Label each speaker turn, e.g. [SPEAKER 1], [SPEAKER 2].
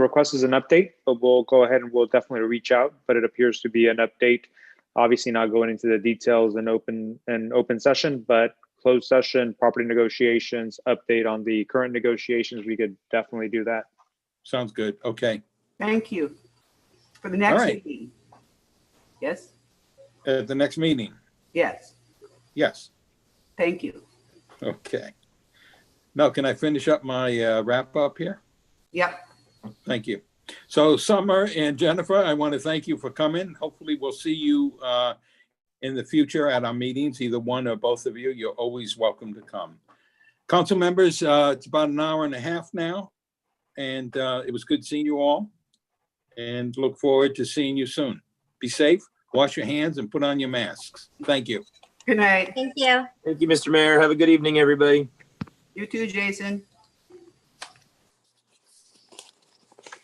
[SPEAKER 1] request is an update, but we'll go ahead and we'll definitely reach out. But it appears to be an update. Obviously, not going into the details in open and open session, but closed session, property negotiations, update on the current negotiations. We could definitely do that.
[SPEAKER 2] Sounds good. Okay.
[SPEAKER 3] Thank you. For the next
[SPEAKER 2] right.
[SPEAKER 3] meeting. Yes,
[SPEAKER 2] At the next meeting.
[SPEAKER 3] yes,
[SPEAKER 2] Yes.
[SPEAKER 3] thank you.
[SPEAKER 2] Okay. Now, can I finish up my uh, wrap up here?
[SPEAKER 3] Yep,
[SPEAKER 2] Thank you. So Summer and Jennifer, I want to thank you for coming. Hopefully, we'll see you uh, in the future at our meetings, either one or both of you. You're always welcome to come. Council members, uh, it's about an hour and a half now, and uh, it was good seeing you all. And look forward to seeing you soon. Be safe, wash your hands, and put on your masks. Thank you.
[SPEAKER 3] good night.
[SPEAKER 4] Thank you.
[SPEAKER 5] Thank you, Mr. Mayor. Have a good evening, everybody.
[SPEAKER 3] You too, Jason.